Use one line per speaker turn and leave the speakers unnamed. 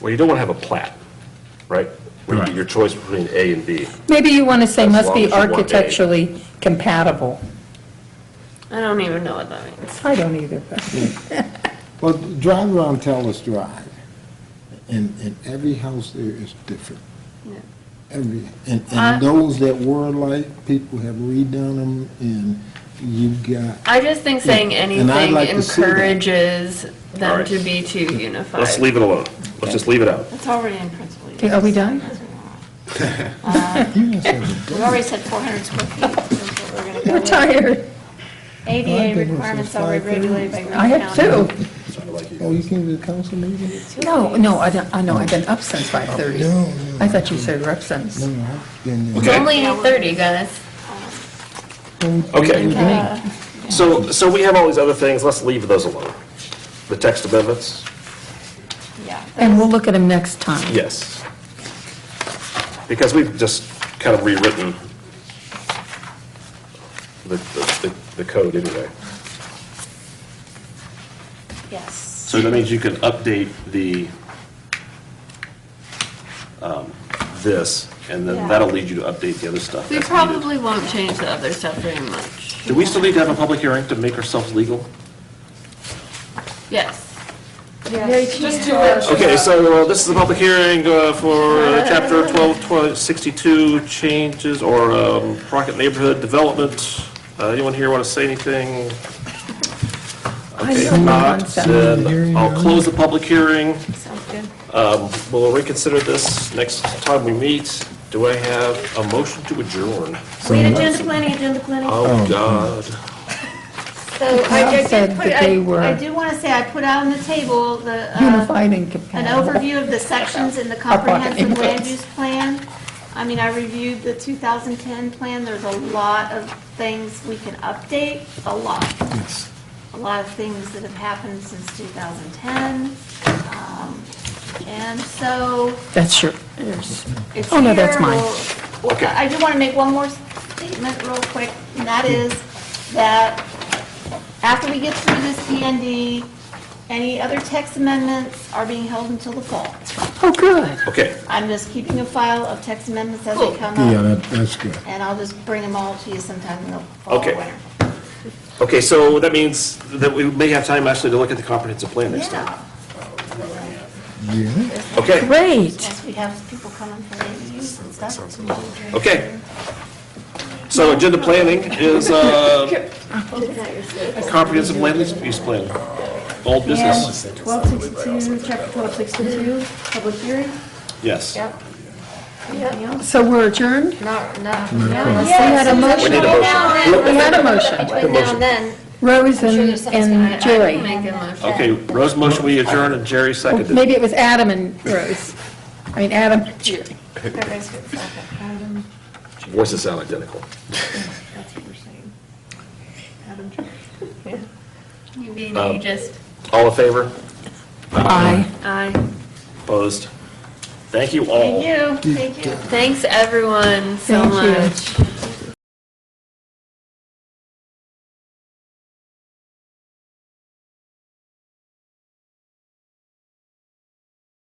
Well, you don't want to have a plat, right? Where
Right.
you- your choice between A and B.
Maybe you want to say
As
must
long as you
be
want A.
architecturally compatible.
I don't even know what that means.
I don't either, but
Well, drive around Taylor's Drive, and, and every house there is different.
Yeah.
Every, and,
I-
and those that were like, people have redone them, and you've got,
I just think saying
and I'd
anything
like to see that.
encourages
All
them
right.
to be too unified.
Let's leave it alone. Let's just leave it out.
It's already in principle.
Okay, are we done?
you know, so-
We've already said 400 square feet. That's what we're gonna go
we're
with.
tired.
ADA requirements are regulated by Green
I have two.
County.
oh, you came to the council meeting?
No, no, I don't, I know, I've been up since
Oh,
5:30.
No, no,
I thought you said we up since.
No, no, I've been there.
It's only 8:30, guys.
Okay. So, so we have all these other things. Let's leave those alone. The text amendments,
Yeah.
And we'll look at them next time.
yes. Because we've just kind of rewritten the, the, the code anyway.
Yes.
So that means you can update the, um, this, and then
Yeah.
that'll lead you to update the other stuff
We
that's needed.
probably won't change the other stuff very much.
Do we still need to have a public hearing to make ourselves legal?
Yes.
Just do it.
Okay, so uh, this is a public hearing uh, for uh, Chapter 1262, changes or um, Rocket Neighborhood Development. Uh, Anyone here want to say anything?
I
Okay,
know
if not,
concept.
then I'll close the public hearing. Um,
Sounds good.
We'll reconsider this next time we meet. Do I have a motion to adjourn?
Wait, agenda planning, agenda planning.
Oh, God.
So I I
said
did put,
that they were-
I, I do want to say, I put out on the table the, uh,
Unified and
an
compatible.
overview of the sections in the
Up on
comprehensive land
English.
use plan. I mean, I reviewed the 2010 plan, there's a lot of things we can update, a lot.
Yes.
a lot of things that have happened since 2010. Um, And so
That's your, yours.
it's here.
Oh, no, that's mine.
We'll- well, I do want to make one more statement real quick, and that is that after we get through this PND, any other text amendments are being held until the fall.
Oh, good.
Okay,
I'm just keeping a file of text amendments as
Cool.
they come
Yeah,
up,
that, that's good.
and I'll just bring them all to you sometime in the fall or
Okay.
winter.
okay, so that means that we may have time actually to look at the comprehensive plan next time.
Yeah,
Yeah.
Okay,
Great.
Once we have people coming for the use and stuff. it's gonna be great.
okay. So agenda planning is uh, comprehensive land use plan, old business,
1262, chapter 1262, public hearing?
yes.
Anything else?
So we're adjourned?
Not, not.
We had a motion.
need a motion.
We had a motion.
Make a motion.
Rose
sure
and
there's someone's
and Jerry.
Make a motion.
Okay, Rose motion, we adjourn, and Jerry seconded.
Maybe it was Adam and Rose. I mean, Adam and Jerry.
Everybody's good. Adam,
Voices sound identical.
that's what we're saying. Adam,
You being ageist.
Um, All in favor?
Aye.
Aye.
Opposed? Thank you all.
you, thank you.
Thanks, everyone, so
Thank you.
much.